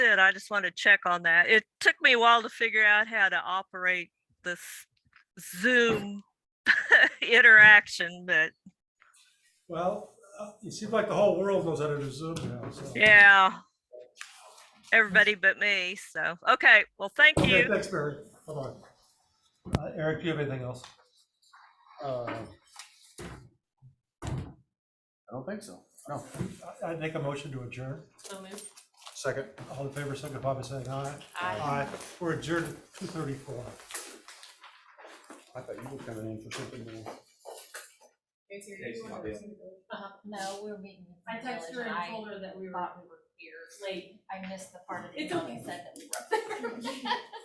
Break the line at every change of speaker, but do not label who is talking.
it. I just want to check on that. It took me a while to figure out how to operate this Zoom interaction, but
Well, uh, it seems like the whole world knows how to do Zoom now, so.
yeah. Everybody but me, so, okay, well, thank
Okay,
you.
thanks, Mary. Hold on. Uh, Eric, do you have anything else?
Uh, I don't think so. No.
I- I'd make a motion to adjourn.
So moved.
Second.
All in favor, signify by saying aye.
Aye.
We're adjourned two thirty-four.
I thought you were coming in for something more.
Uh-huh. No, we're meeting. with
I
the
texted her
village.
and
I
told her that we were
thought we were
here late.
I missed the part of the.
It's
meeting that
okay.
Said that we were up there.